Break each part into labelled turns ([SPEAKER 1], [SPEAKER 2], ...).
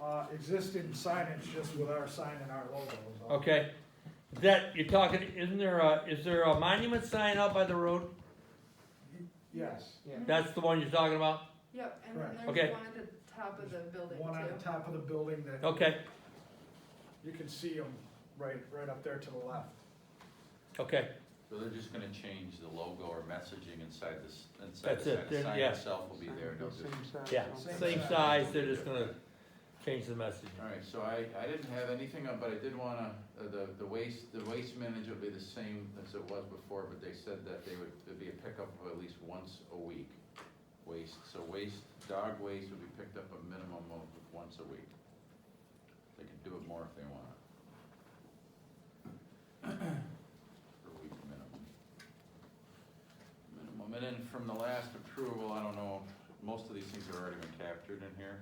[SPEAKER 1] Uh, existing signage just with our sign and our logo is all.
[SPEAKER 2] Okay, that, you're talking, isn't there a, is there a monument sign out by the road?
[SPEAKER 1] Yes,
[SPEAKER 2] That's the one you're talking about?
[SPEAKER 3] Yep, and then
[SPEAKER 1] Correct.
[SPEAKER 2] Okay.
[SPEAKER 3] there's one at the top of the building
[SPEAKER 1] one on the
[SPEAKER 3] too.
[SPEAKER 1] top of the building that
[SPEAKER 2] Okay,
[SPEAKER 1] you can see them right, right up there to the left.
[SPEAKER 2] okay,
[SPEAKER 4] So they're just gonna change the logo or messaging inside this, inside
[SPEAKER 2] That's
[SPEAKER 4] the
[SPEAKER 2] it,
[SPEAKER 4] sign.
[SPEAKER 2] then,
[SPEAKER 4] The sign
[SPEAKER 2] yeah.
[SPEAKER 4] itself will be there, no different.
[SPEAKER 2] yeah,
[SPEAKER 1] Same
[SPEAKER 2] same
[SPEAKER 1] size.
[SPEAKER 2] size, they're just gonna change the message.
[SPEAKER 4] Alright, so I, I didn't have anything, on, but I did wanna, uh, the, the waste, the waste manager will be the same as it was before, but they said that they would, there'd be a pickup of at least once a week. Waste, so waste, dog waste would be picked up a minimum of once a week. They can do it more if they want. Per week minimum. Minimum, and then from the last approval, I don't know, most of these things have already been captured in here.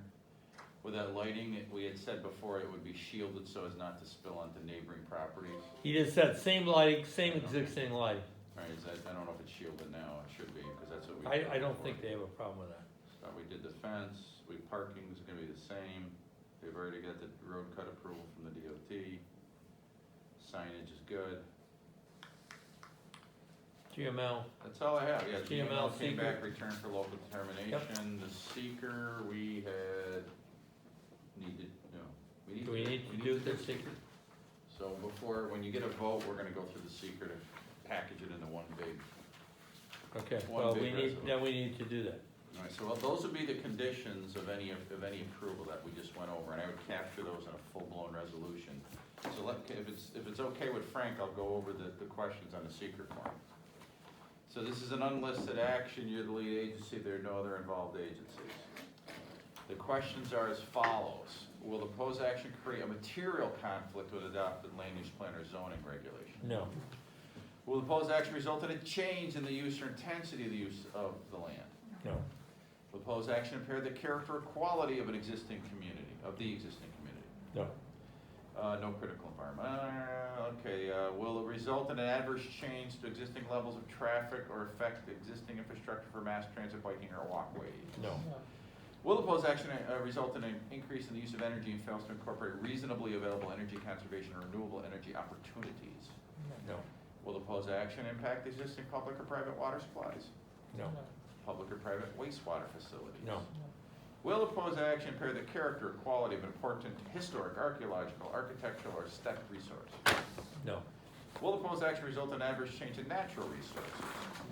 [SPEAKER 4] With that lighting, it- we had said before it would be shielded so as not to spill onto neighboring properties.
[SPEAKER 2] He just said same lighting, same existing lighting.
[SPEAKER 4] All right, is that, I don't know if it's shielded now, it should be, because that's what we.
[SPEAKER 2] I,
[SPEAKER 4] did
[SPEAKER 2] I don't
[SPEAKER 4] before.
[SPEAKER 2] think they have a problem with that.
[SPEAKER 4] So we did the fence, we, parking's gonna be the same, they've already got the road cut approval from the DOT. Signage is good,
[SPEAKER 2] GML,
[SPEAKER 4] that's all I have, yeah,
[SPEAKER 2] GML
[SPEAKER 4] GML came
[SPEAKER 2] seeker.
[SPEAKER 4] back, returned for local determination, the seeker, we had needed, no. need
[SPEAKER 2] do we need to do this secret?
[SPEAKER 4] So before, when you get a vote, we're gonna go through the secret and package it into one big.
[SPEAKER 2] Okay,
[SPEAKER 4] One
[SPEAKER 2] well,
[SPEAKER 4] big
[SPEAKER 2] we need,
[SPEAKER 4] resolution.
[SPEAKER 2] then we need to do that.
[SPEAKER 4] Alright, so those would be the conditions of any, of any approval that we just went over, and I would capture those in a full-blown resolution. So let, if it's, if it's okay with Frank, I'll go over the, the questions on the secret form. So this is an unlisted action, you're the lead agency, there are no other involved agencies. The questions are as follows, will the proposed action create a material conflict with adopted land use plan or zoning regulations?
[SPEAKER 2] No,
[SPEAKER 4] Will the proposed action result in a change in the use or intensity of the use of the land?
[SPEAKER 2] no,
[SPEAKER 4] Will the proposed action impair the character or quality of an existing community, of the existing community?
[SPEAKER 2] no,
[SPEAKER 4] Uh, no critical environment, Uh, okay, uh, will it result in an adverse change to existing levels of traffic or affect existing infrastructure for mass transit, biking, or walkways?
[SPEAKER 2] no,
[SPEAKER 4] Will the proposed action uh, result in an increase in the use of energy and fails to incorporate reasonably available energy conservation or renewable energy opportunities?
[SPEAKER 2] no,
[SPEAKER 4] Will the proposed action impact existing public or private water supplies?
[SPEAKER 2] no,
[SPEAKER 4] public or private wastewater facilities.
[SPEAKER 2] no,
[SPEAKER 4] Will the proposed action impair the character or quality of an important historic, archaeological, architectural, or aesthetic resource?
[SPEAKER 2] no,
[SPEAKER 4] Will the proposed action result in adverse change in natural resources?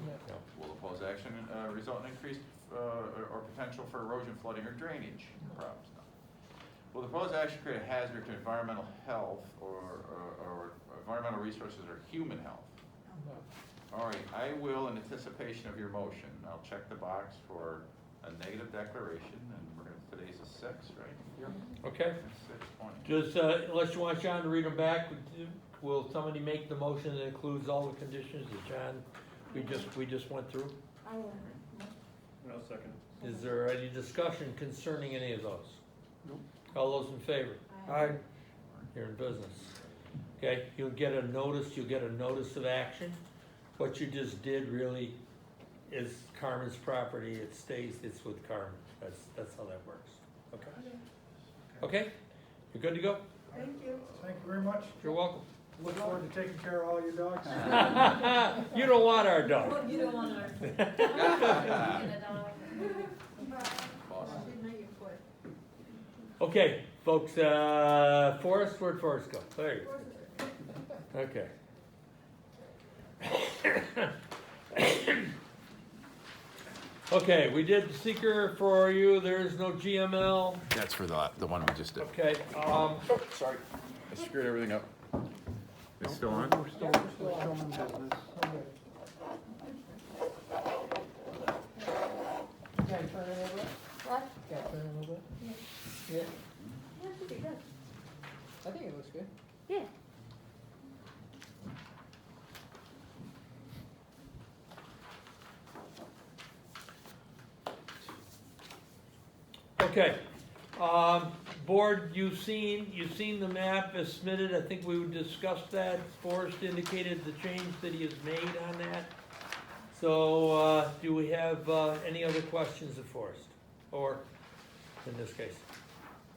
[SPEAKER 2] no,
[SPEAKER 4] Will the proposed action uh, result in increased uh, or or potential for erosion, flooding, or drainage problems? No. Will the proposed action create a hazard to environmental health or, or- or environmental resources or human health? All right, I will, in anticipation of your motion, I'll check the box for a negative declaration, and we're gonna, today's a six, right?
[SPEAKER 2] okay.
[SPEAKER 4] Six twenty.
[SPEAKER 2] Just, uh, unless you want John to read them back, will somebody make the motion that includes all the conditions that John, we just, we just went through?
[SPEAKER 5] I will.
[SPEAKER 6] No second.
[SPEAKER 2] Is there any discussion concerning any of those? All those in favor? You're in business. Okay, you'll get a notice, you'll get a notice of action. What you just did really is Carmen's property, it stays, it's with Carmen, that's, that's how that works. Okay, okay, you're good to go,
[SPEAKER 3] Thank you.
[SPEAKER 1] Thank you very much.
[SPEAKER 2] you're welcome.
[SPEAKER 1] Look forward to taking care of all your dogs.
[SPEAKER 2] You don't want our dog.
[SPEAKER 5] You don't want our.
[SPEAKER 4] Awesome.
[SPEAKER 2] Okay, folks, uh, Forrest, where'd Forrest go? There you go. Okay. Okay, we did seeker for you, there is no GML,
[SPEAKER 4] That's for the, the one we just did.
[SPEAKER 2] okay, um,
[SPEAKER 4] Sorry, I screwed everything up. It's still on?
[SPEAKER 5] What?
[SPEAKER 7] Yeah,
[SPEAKER 5] Yeah, it should be good.
[SPEAKER 7] I think it looks good.
[SPEAKER 5] Yeah.
[SPEAKER 2] okay. Um, board, you've seen, you've seen the map as submitted, I think we would discuss that, Forrest indicated the change that he has made on that. So, uh, do we have, uh, any other questions of Forrest, or, in this case?